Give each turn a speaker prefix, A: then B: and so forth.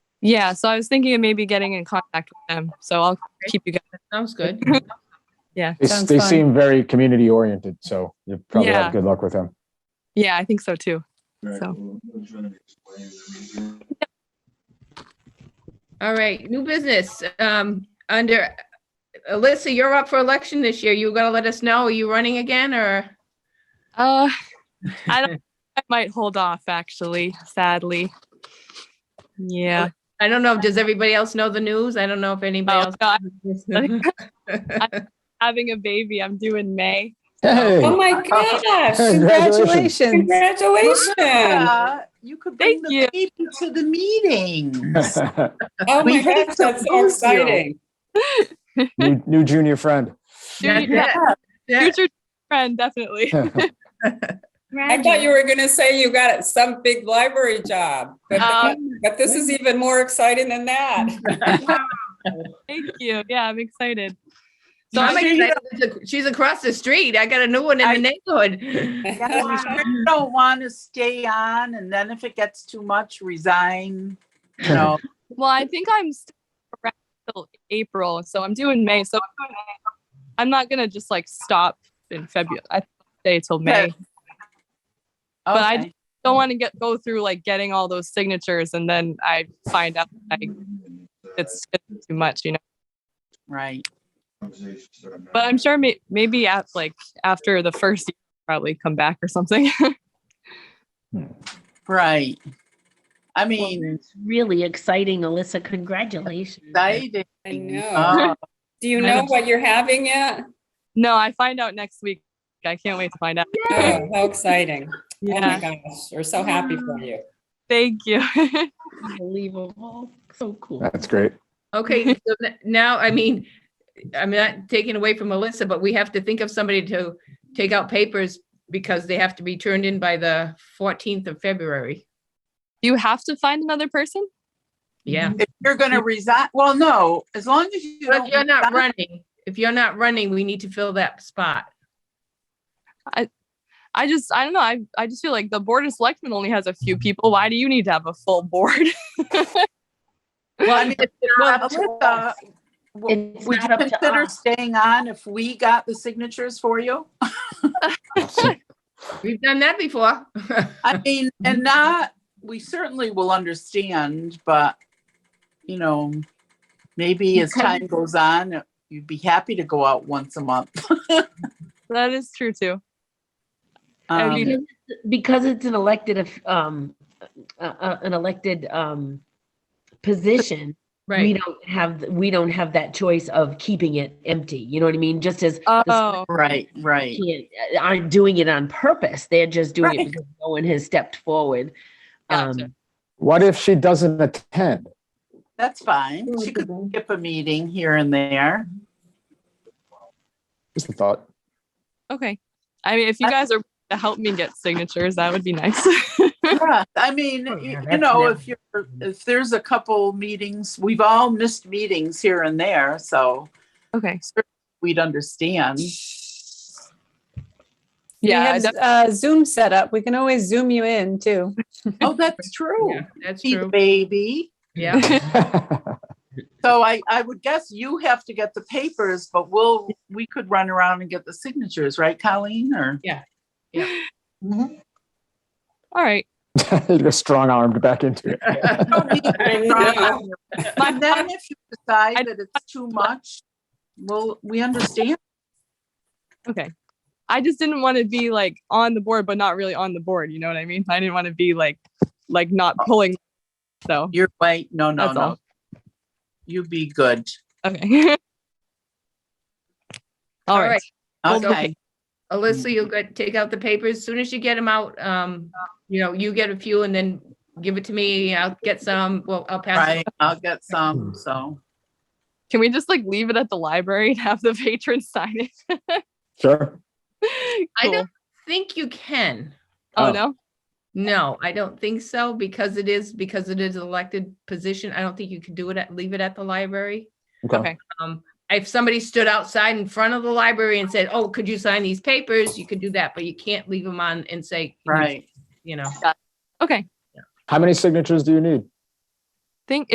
A: Yeah, so I was thinking of maybe getting in contact with them. So I'll keep you guys.
B: Sounds good.
A: Yeah.
C: They, s-
B: Sounds
C: they
B: fun.
C: seem very community oriented, so you probably
A: Yeah.
C: have good luck with them.
A: Yeah, I think so too. So.
D: So.
B: All right, new business. Um, under, Alyssa, you're up for election this year. You gonna let us know? Are you running again or?
A: Uh, I don't, I might hold off actually, sadly. Yeah.
B: I don't know. Does everybody else know the news? I don't know if
A: Oh,
B: anybody else.
A: no, I-
B: I
A: having a baby, I'm due in May.
C: Hey,
E: Oh my gosh,
C: Congratulations.
E: congratulations. Congratulations.
F: Yeah, You could
A: Thank
F: bring the baby to the meetings.
E: Oh
F: We
E: my
F: hate
E: gosh,
F: to
E: that's so
F: lose you.
E: exciting.
C: new, new junior friend.
A: Junior- Future friend, definitely.
E: I thought you were gonna say you got some big library job, but,
A: Um,
E: but this is even more exciting than that.
A: Thank you. Yeah, I'm excited.
B: So
F: You
B: I'm
F: sure you
B: excited. that She's across the street. I got a new one in the neighborhood.
F: You sure you Don't want to stay on and then if it gets too much, resign, you know.
A: Well, I think I'm still around till April, so I'm due in May. So I'm not gonna just like stop in February. I stay till May. But I-
F: Okay.
A: Don't want to get go through like getting all those signatures and then I find out I, it's it's too much, you know.
F: Right.
A: But I'm sure may, maybe at like after the first year, probably come back or something.
F: Right. I
G: Well,
F: mean,
G: that's Really exciting, Alyssa. Congratulations.
F: exciting.
E: I
A: Uh,
E: know.
F: Oh,
E: Do you know what you're having yet?
A: no, I find out next week. I can't wait to find out.
E: Oh, how exciting. Oh my
A: Yeah.
E: gosh, we're so happy for you.
A: Thank you.
G: Unbelievable. So cool.
C: That's great.
B: Okay, so n- now, I mean, I'm not taking away from Melissa, but we have to think of somebody to take out papers because they have to be turned in by the fourteenth of February.
A: you have to find another person?
B: Yeah.
F: If you're gonna resign, well, no, as long as you
B: But
F: don't.
B: if you're not
F: resign-
B: running, if you're not running, we need to fill that spot.
A: I just I don't know. I I just feel like the board of selectmen only has a few people. Why do you need to have a full board?
B: Well, I mean, it's
F: Well,
B: not up to
F: Alyssa, w-
G: It's
F: Would
G: not
F: you
G: up to
F: consider
G: us.
F: staying on if we got the signatures for you?
B: We've done that before.
F: I mean,
B: Mm-hmm.
F: and not, we certainly will understand, but, you know, maybe as time goes on, you'd be happy to go out once a month.
A: that is true too.
B: Oh,
F: Um,
A: mean-
G: Because it's- Because it's an elected, of- um, uh, uh, an elected, um, position. We
B: Right.
G: don't have, we don't have that choice of keeping it empty. You know what I mean? Just as
A: Oh,
F: Right, right.
G: can't, aren't doing it on purpose. They're just doing
F: Right.
G: it because no one has stepped forward.
A: Gotcha.
G: Um,
C: What if she doesn't attend?
F: That's fine. She could skip a meeting here and there.
C: Just a thought.
A: okay. I mean, if you guys are willing to help me get signatures, that would be nice.
F: Yeah, I mean,
G: Oh, yeah,
F: you you
G: that's
F: know,
G: never-
F: if you're, if there's a couple meetings, we've all missed meetings here and there, so
A: okay.
F: we'd understand.
E: We
A: Yeah. I
E: have
A: def-
E: uh, Zoom set up. We can always Zoom you in too.
F: Oh, that's true.
B: Yeah, That's
F: See the
B: true.
F: baby.
B: Yeah.
F: So I, I would guess you have to get the papers, but we'll, we could run around and get the signatures, right, Colleen, or?
A: all right.
C: You're strong armed back into it.
F: But then if you decide
A: I-
F: that it's too much, well, we understand.
A: Okay. I just didn't want to be like on the board, but not really on the board. You know what I mean? I didn't want to be like, like not pulling. So
F: You're right. No, no,
A: That's
F: no.
A: all.
F: You be good.
A: okay. all
B: All
A: right.
B: right. Well,
F: Okay.
B: Alyssa, you'll get, take out the papers. As Soon as you get them out, um, you know, you get a few and then give it to me. I'll get some. Well, I'll pass.
F: Right.
B: it.
F: I'll get some, so.
A: Can we just like leave it at the library and have the patrons sign it?
C: Sure.
B: I
A: Cool.
B: don't think you can.
A: Oh
C: Oh.
A: no.
B: No, I don't think so because it is, because it is an elected position. I don't think you can do it at, leave it at the library.
A: Okay.
B: Um, if somebody stood outside in front of the library and said, oh, could you sign these papers? You could do that, but you can't leave them on and say,
F: Right.
B: you know.
A: Okay.
C: How many signatures do you need?
A: Think